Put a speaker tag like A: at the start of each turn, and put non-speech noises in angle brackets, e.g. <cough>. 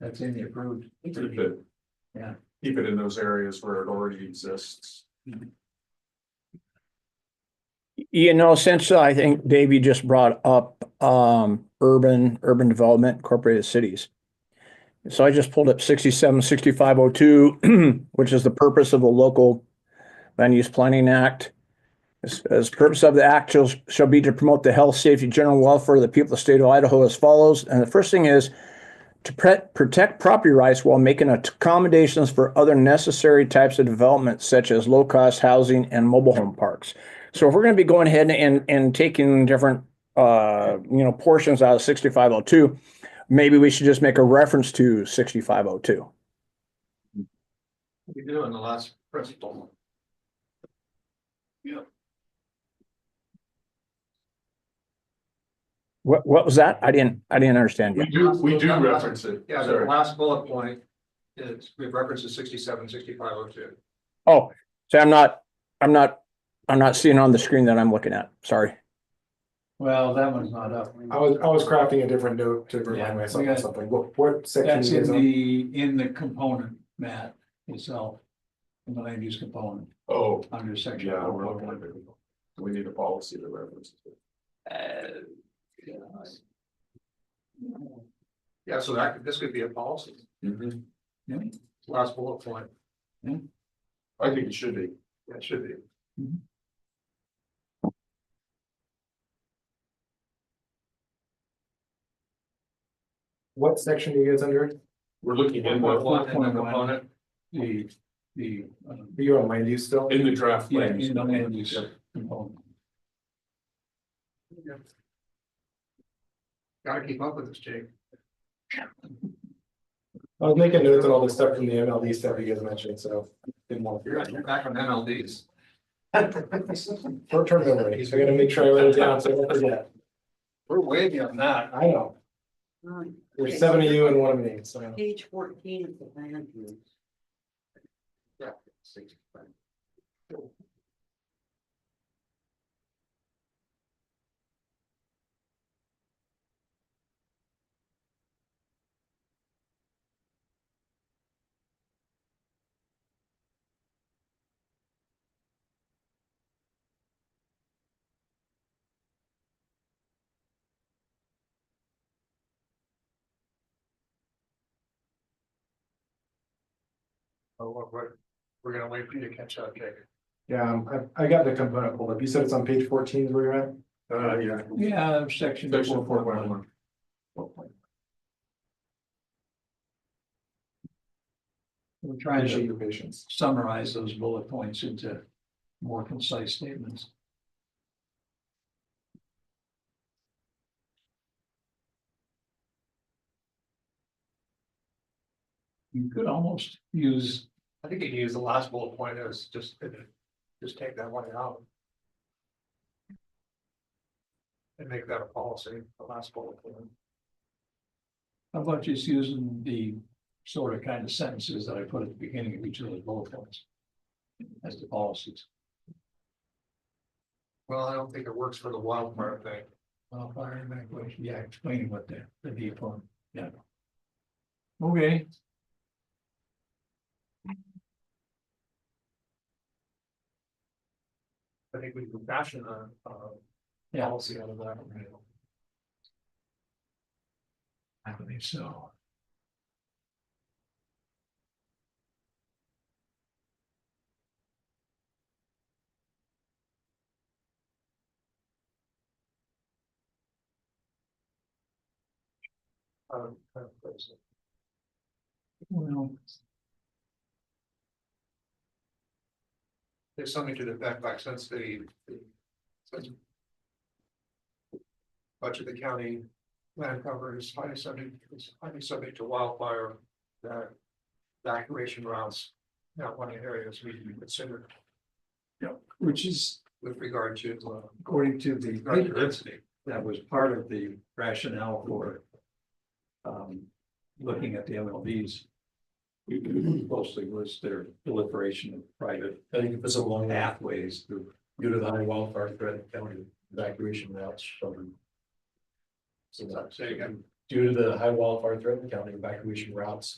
A: That's in the approved.
B: keep it.
A: Yeah.
B: Keep it in those areas where it already exists.
C: You know, since I think Dave, you just brought up um urban, urban development incorporated cities. So I just pulled up sixty-seven, sixty-five oh two, <clears throat> which is the purpose of the local land use planning act. As, as purpose of the act shall, shall be to promote the health, safety, general welfare of the people of the state of Idaho as follows. And the first thing is to pre- protect property rights while making accommodations for other necessary types of development such as low-cost housing and mobile home parks. So if we're gonna be going ahead and, and taking different, uh, you know, portions out of sixty-five oh two, maybe we should just make a reference to sixty-five oh two.
B: We do in the last principle.
C: What, what was that? I didn't, I didn't understand
B: We
C: you.
B: do, we do reference it.
A: Yeah, the
B: Sorry.
A: last bullet point is, we reference to sixty-seven, sixty-five oh two.
C: Oh, so I'm not, I'm not, I'm not seeing on the screen that I'm looking at. Sorry.
A: Well, that one's not up.
D: I was, I was crafting a different note to
A: Yeah,
D: remind
A: we
D: myself
A: got-
D: of something. What, what section
A: That's in
D: is it?
A: the, in the component, Matt, itself, in the land use component,
B: Oh,
A: under section.
B: yeah, we're looking at it.
A: 4.1.
B: We need a policy that references it.
A: Uh, yeah.
B: Yeah, so that, this could be a policy. Mm-hmm.
A: Yeah, last bullet point.
B: I think it should be. Yeah, it should be.
D: What section are you guys under?
B: We're looking in
A: Four
B: the,
A: point one. The, the, uh,
D: You're on land use still?
B: in the draft.
A: yeah,
B: language.
A: in the land use
B: Yep.
A: component.
B: Gotta keep up with this, Jake.
D: I was making notes on all this stuff from the MLD stuff you guys mentioned, so didn't want
B: You're
D: to.
B: you're back on MLDs.
D: Short term memory, so I gotta make sure I write it down so I don't forget.
B: We're way beyond that.
D: I know,
E: Um,
D: there's seven of you and one of me, so.
E: Page fourteen of the land use.
B: Oh, we're- we're, we're gonna wait for you to catch up, Jake.
D: Yeah, um, I, I got the component pulled up. You said it's on page fourteen is where you're at?
B: Uh, yeah.
A: Yeah, section.
B: Section four point
A: 4.1.
B: one.
A: We're trying
D: Appreciate
A: to
D: your patience.
A: summarize those bullet points into more concise statements. You could almost use
B: I think you can use the last bullet point as just, just take that one out. And make that a policy, the last bullet point.
A: How about just using the sort of kind of sentences that I put at the beginning of each of those bullet points? As the policies.
B: Well, I don't think it works for the wildfire thing.
A: Well, fire and evacuation, yeah, explaining what the, the viewpoint, yeah. Okay.
B: I think we can fashion a, a
A: Yeah.
B: policy out of that.
A: I believe so.
B: um, kind of place.
A: Well,
B: There's something to the fact, like, since the, the. since Much of the county land cover is highly subject, is highly subject to wildfire, that evacuation routes. Not one of the areas we can consider
A: which is
B: with regard to, uh,
A: according to the
B: regard to density.
A: that was part of the rationale for. Um, looking at the MLBs. Mostly was their proliferation of private, I think it was along pathways through, due to the high wildfire threat, county evacuation routes from.
B: Say again.
A: due to the high wildfire threat in the county, evacuation routes